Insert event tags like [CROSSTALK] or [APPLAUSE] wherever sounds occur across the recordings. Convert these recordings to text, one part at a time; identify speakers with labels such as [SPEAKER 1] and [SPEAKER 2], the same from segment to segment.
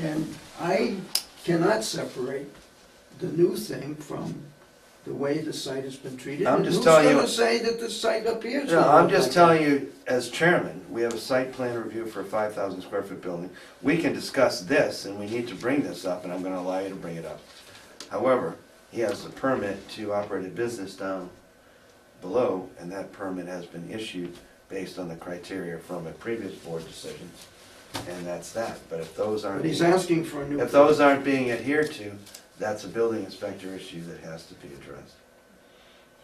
[SPEAKER 1] And I cannot separate the new thing from the way the site has been treated.
[SPEAKER 2] I'm
[SPEAKER 1] And
[SPEAKER 2] just telling you-
[SPEAKER 1] Who's gonna say that the site up here is
[SPEAKER 2] No,
[SPEAKER 1] gonna
[SPEAKER 2] I'm
[SPEAKER 1] look
[SPEAKER 2] just
[SPEAKER 1] like
[SPEAKER 2] telling you, as chairman, we have a site plan review for a five thousand square foot building. We can discuss this, and we need to bring this up, and I'm gonna allow you to bring it up. However, he has a permit to operate a business down below, and that permit has been issued based on the criteria from a previous board decision, and that's that. But if those
[SPEAKER 1] that?
[SPEAKER 2] aren't,
[SPEAKER 1] But he's
[SPEAKER 2] being-
[SPEAKER 1] asking for a new.
[SPEAKER 2] if those aren't being adhered to, that's a building inspector issue that has to be addressed.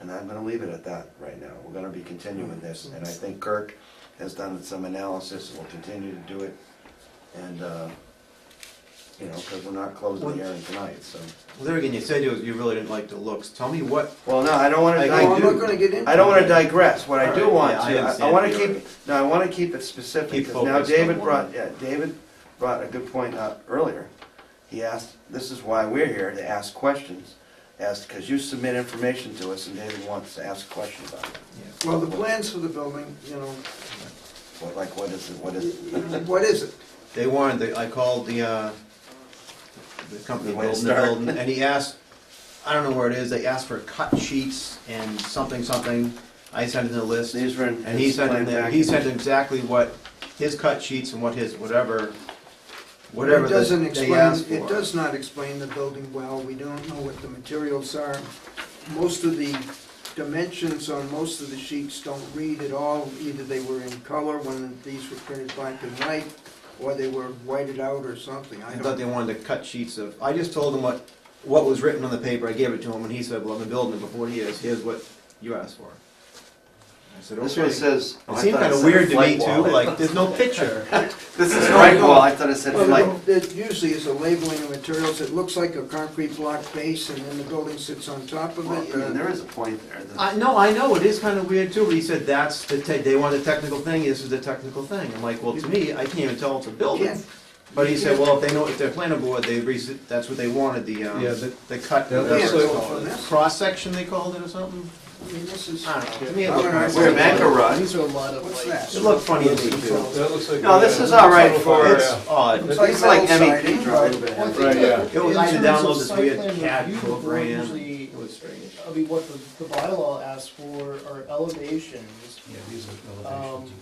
[SPEAKER 2] And I'm gonna leave it at that right now. We're gonna be continuing this, and I think Kirk has done some analysis, and will continue to do it. And, uh, you know, because we're not closing the hearing tonight, so.
[SPEAKER 3] Well, there again, you said you, you really didn't like the looks. Tell me what,
[SPEAKER 2] Well, no, I don't wanna,
[SPEAKER 3] Like,
[SPEAKER 1] No, I'm
[SPEAKER 2] I
[SPEAKER 1] not gonna get into.
[SPEAKER 2] I don't wanna
[SPEAKER 1] it.
[SPEAKER 2] digress. What I do
[SPEAKER 3] Alright,
[SPEAKER 2] want
[SPEAKER 3] yeah,
[SPEAKER 2] to,
[SPEAKER 3] I
[SPEAKER 2] I- I
[SPEAKER 3] understand
[SPEAKER 2] wanna
[SPEAKER 3] the
[SPEAKER 2] keep,
[SPEAKER 3] area.
[SPEAKER 2] no, I wanna keep it specific,
[SPEAKER 3] Keep
[SPEAKER 2] because now
[SPEAKER 3] focused on
[SPEAKER 2] David
[SPEAKER 3] one.
[SPEAKER 2] brought, yeah, David brought a good point up earlier. He asked, this is why we're here, to ask questions, asked, because you submit information to us, and David wants to ask a question about it.
[SPEAKER 1] Well, the plans for the building, you know,
[SPEAKER 2] What, like, what is it, what is it?
[SPEAKER 1] what is it?
[SPEAKER 3] they wanted, the- I called the, uh, the company
[SPEAKER 2] The way to
[SPEAKER 3] building the
[SPEAKER 2] start.
[SPEAKER 3] building, and he asked, I don't know where it is, they asked for cut sheets and something, something. I sent him the list,
[SPEAKER 2] These were in
[SPEAKER 3] and he
[SPEAKER 2] his
[SPEAKER 3] sent
[SPEAKER 2] plan
[SPEAKER 3] him, the- he
[SPEAKER 2] package.
[SPEAKER 3] sent exactly what his cut sheets and what his, whatever, whatever
[SPEAKER 1] It
[SPEAKER 3] that
[SPEAKER 1] doesn't
[SPEAKER 3] they
[SPEAKER 1] explain-
[SPEAKER 3] asked for.
[SPEAKER 1] It does not explain the building well, we don't know what the materials are. Most of the dimensions on most of the sheets don't read at all, either they were in color when these were printed black and white, or they were whited out or something, I
[SPEAKER 3] I thought
[SPEAKER 1] don't
[SPEAKER 3] they wanted to cut sheets of, I just told him what, what was written on the paper, I gave it to him, and he said, well, I've been building it for forty years, here's what you asked for. I said, okay.
[SPEAKER 2] This one says. oh,
[SPEAKER 3] It
[SPEAKER 2] I
[SPEAKER 3] seemed
[SPEAKER 2] thought
[SPEAKER 3] kind of
[SPEAKER 2] said
[SPEAKER 3] weird to me
[SPEAKER 2] flight
[SPEAKER 3] too,
[SPEAKER 2] wall.
[SPEAKER 3] like, Oh. there's no [LAUGHS] picture.
[SPEAKER 2] This is flight wall, I thought it said flight.
[SPEAKER 1] Well, It usually is a labeling of materials, it looks like a concrete block base, and then the building sits on top of
[SPEAKER 2] Well,
[SPEAKER 1] it.
[SPEAKER 2] I mean,
[SPEAKER 1] and-
[SPEAKER 2] there is a point there. that-
[SPEAKER 3] I, no, I know, it is kind of weird too, but he said, that's the, te- they want a technical thing, this is the technical thing. I'm like, well, to me, I can't even tell it's a
[SPEAKER 1] Yeah.
[SPEAKER 3] building. But he said, well, if they know, if they're planning board, they, resi- that's what they wanted, the, um,
[SPEAKER 4] Yeah, the-
[SPEAKER 3] the cut,
[SPEAKER 4] Yeah,
[SPEAKER 1] You
[SPEAKER 4] that's
[SPEAKER 1] can't
[SPEAKER 4] like-
[SPEAKER 1] tell from this.
[SPEAKER 3] cross-section they called it or something?
[SPEAKER 1] I mean, this is-
[SPEAKER 3] I don't know, to me it
[SPEAKER 1] All
[SPEAKER 3] looked.
[SPEAKER 1] right,
[SPEAKER 3] nice.
[SPEAKER 2] We're in Mancor
[SPEAKER 5] These are a lot of
[SPEAKER 1] What's
[SPEAKER 5] like.
[SPEAKER 1] that?
[SPEAKER 3] It looked funny to me too.
[SPEAKER 4] That looks like.
[SPEAKER 2] No, this is all right for,
[SPEAKER 3] It's odd.
[SPEAKER 1] It's
[SPEAKER 2] it's like
[SPEAKER 1] metal
[SPEAKER 2] MEP
[SPEAKER 1] siding,
[SPEAKER 2] drawing,
[SPEAKER 1] right?
[SPEAKER 2] but.
[SPEAKER 5] One thing
[SPEAKER 4] Right,
[SPEAKER 5] that-
[SPEAKER 4] yeah.
[SPEAKER 3] It was
[SPEAKER 5] in
[SPEAKER 3] either
[SPEAKER 5] terms of
[SPEAKER 3] download this
[SPEAKER 5] site
[SPEAKER 3] weird
[SPEAKER 5] plan
[SPEAKER 3] CAD
[SPEAKER 5] review, the board
[SPEAKER 3] program.
[SPEAKER 5] usually-
[SPEAKER 3] It was strange.
[SPEAKER 5] I mean, what the, the bylaw asks for are elevations,
[SPEAKER 4] Yeah, these are
[SPEAKER 5] um,
[SPEAKER 4] elevations.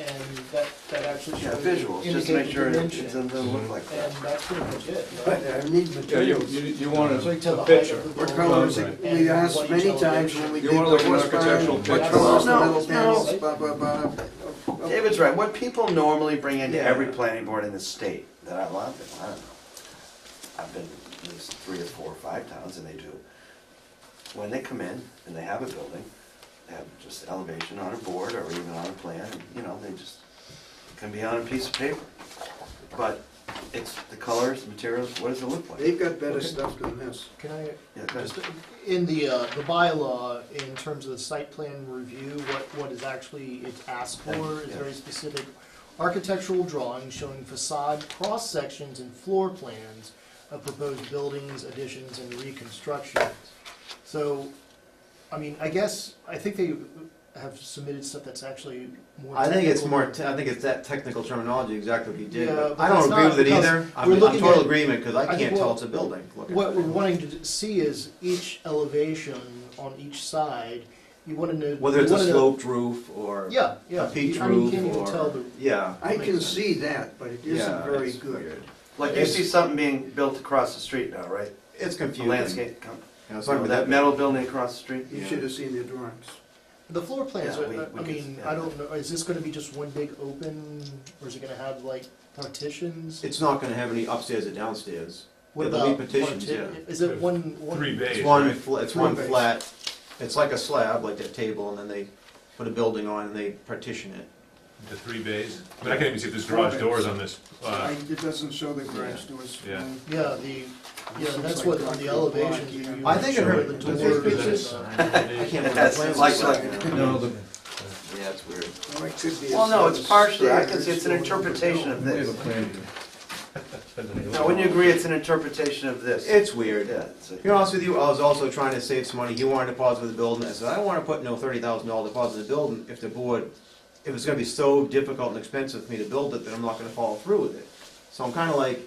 [SPEAKER 5] and that, that actually
[SPEAKER 2] Yeah,
[SPEAKER 5] shows.
[SPEAKER 2] visuals, just to make
[SPEAKER 5] indicate
[SPEAKER 2] sure it it
[SPEAKER 5] dimensions,
[SPEAKER 2] doesn't look like that.
[SPEAKER 5] And that's pretty much it,
[SPEAKER 1] But
[SPEAKER 5] right?
[SPEAKER 1] I need
[SPEAKER 4] Yeah, you,
[SPEAKER 1] materials.
[SPEAKER 4] you you want
[SPEAKER 5] So you
[SPEAKER 4] a-
[SPEAKER 5] tell the
[SPEAKER 4] a
[SPEAKER 5] height
[SPEAKER 4] picture.
[SPEAKER 5] of the
[SPEAKER 1] What
[SPEAKER 5] building.
[SPEAKER 1] colors,
[SPEAKER 4] Right.
[SPEAKER 1] we asked many times when we
[SPEAKER 4] You
[SPEAKER 1] did the
[SPEAKER 4] wanna look at an
[SPEAKER 1] horse barn,
[SPEAKER 4] architectural
[SPEAKER 1] what
[SPEAKER 4] picture.
[SPEAKER 1] colors, the
[SPEAKER 2] No,
[SPEAKER 1] metal
[SPEAKER 2] no.
[SPEAKER 1] panels, blah, blah, blah.
[SPEAKER 2] David's right, what people normally bring into
[SPEAKER 3] Yeah.
[SPEAKER 2] every planning board in the state that I love, and I don't know. I've been at least three or four or five towns and they do. When they come in and they have a building, they have just elevation on a board or even on a plan, and, you know, they just, it can be on a piece of paper. But it's the colors, the materials, what does it look like?
[SPEAKER 1] They've got better stuff than this.
[SPEAKER 5] Can I,
[SPEAKER 2] Yeah, go ahead.
[SPEAKER 5] just, in the, uh, the bylaw, in terms of the site plan review, what, what is actually it's asked for is
[SPEAKER 2] Yeah.
[SPEAKER 5] very specific. Architectural drawings showing facade, cross-sections, and floor plans of proposed buildings, additions, and reconstructions. So, I mean, I guess, I think they have submitted stuff that's actually more.
[SPEAKER 3] I think it's
[SPEAKER 5] technical.
[SPEAKER 3] more, te- I think it's that technical terminology, exactly what he did.
[SPEAKER 5] Yeah,
[SPEAKER 3] but
[SPEAKER 5] but
[SPEAKER 3] I don't
[SPEAKER 5] that's
[SPEAKER 3] agree
[SPEAKER 5] not
[SPEAKER 3] with it
[SPEAKER 5] because
[SPEAKER 3] either. I'm
[SPEAKER 5] we're
[SPEAKER 3] I'm
[SPEAKER 5] looking
[SPEAKER 3] total
[SPEAKER 5] at-
[SPEAKER 3] agreement, because I
[SPEAKER 5] I think
[SPEAKER 3] can't tell
[SPEAKER 5] what-
[SPEAKER 3] it's a building. Look at
[SPEAKER 5] What
[SPEAKER 3] it.
[SPEAKER 5] we're wanting to d- see is each elevation on each side, you wanna know.
[SPEAKER 3] Whether
[SPEAKER 5] you
[SPEAKER 3] it's a
[SPEAKER 5] wanna know-
[SPEAKER 3] sloped roof or a
[SPEAKER 5] Yeah, yeah.
[SPEAKER 3] peaked
[SPEAKER 5] I mean, you
[SPEAKER 3] roof
[SPEAKER 5] can't even tell
[SPEAKER 3] or,
[SPEAKER 5] the,
[SPEAKER 3] yeah.
[SPEAKER 1] I can
[SPEAKER 5] Makes sense.
[SPEAKER 1] see that, but it
[SPEAKER 3] yeah,
[SPEAKER 1] isn't very
[SPEAKER 3] it's
[SPEAKER 1] good.
[SPEAKER 3] weird.
[SPEAKER 2] Like you see something being built across the street now, right?
[SPEAKER 3] It's
[SPEAKER 2] The
[SPEAKER 3] confusing.
[SPEAKER 2] landscape, com-
[SPEAKER 3] Yeah, it's like with
[SPEAKER 2] that metal building across the street?
[SPEAKER 1] You
[SPEAKER 3] Yeah.
[SPEAKER 1] should have seen the drawings.
[SPEAKER 5] the floor plans,
[SPEAKER 2] Yeah,
[SPEAKER 5] are-
[SPEAKER 2] we-
[SPEAKER 5] I-
[SPEAKER 2] we
[SPEAKER 5] I
[SPEAKER 2] can-
[SPEAKER 5] mean,
[SPEAKER 2] yeah.
[SPEAKER 5] I don't know, is this gonna be just one big open, or is it gonna have like partitions?
[SPEAKER 3] It's not gonna have any upstairs or downstairs.
[SPEAKER 5] What
[SPEAKER 3] There'll be
[SPEAKER 5] about
[SPEAKER 3] partitions,
[SPEAKER 5] parti-
[SPEAKER 3] yeah.
[SPEAKER 5] Is it one, one?
[SPEAKER 4] Three bays,
[SPEAKER 3] It's
[SPEAKER 4] right?
[SPEAKER 3] one, fla- it's one
[SPEAKER 1] Three bays.
[SPEAKER 3] flat, it's like a slab, like that table, and then they put a building on and they partition it.
[SPEAKER 4] The three bays. I mean, I can't even see if there's garage doors on this.
[SPEAKER 1] I-
[SPEAKER 4] Uh,
[SPEAKER 1] It doesn't show the garage doors.
[SPEAKER 4] Yeah.
[SPEAKER 1] Um,
[SPEAKER 5] Yeah, the, yeah,
[SPEAKER 1] Looks
[SPEAKER 5] that's
[SPEAKER 1] like
[SPEAKER 5] what, on
[SPEAKER 1] concrete
[SPEAKER 5] the
[SPEAKER 1] block,
[SPEAKER 5] elevation.
[SPEAKER 1] yeah.
[SPEAKER 5] you- you
[SPEAKER 3] I think I
[SPEAKER 5] show
[SPEAKER 3] heard-
[SPEAKER 5] the
[SPEAKER 3] those
[SPEAKER 5] door
[SPEAKER 3] pictures?
[SPEAKER 5] and, uh,
[SPEAKER 3] I can't remember.
[SPEAKER 2] That's
[SPEAKER 3] the plans.
[SPEAKER 2] like-
[SPEAKER 3] [LAUGHS]
[SPEAKER 4] No, the,
[SPEAKER 3] Yeah, it's weird.
[SPEAKER 1] Well, it could be a
[SPEAKER 2] Well, no,
[SPEAKER 1] set
[SPEAKER 2] it's
[SPEAKER 1] of
[SPEAKER 2] partially, I can
[SPEAKER 1] stairs
[SPEAKER 2] see, it's an
[SPEAKER 1] going up and
[SPEAKER 2] interpretation
[SPEAKER 1] down.
[SPEAKER 2] of this.
[SPEAKER 4] plan.
[SPEAKER 2] Now, wouldn't you agree it's an interpretation of this?
[SPEAKER 3] It's weird.
[SPEAKER 2] Yeah, it's a-
[SPEAKER 3] To be honest with you, I was also trying to save some money. He wanted to deposit with the building. I said, I don't wanna put no thirty thousand dollar deposit in the building if the board, if it's gonna be so difficult and expensive for me to build it, then I'm not gonna follow through with it. So I'm kinda like,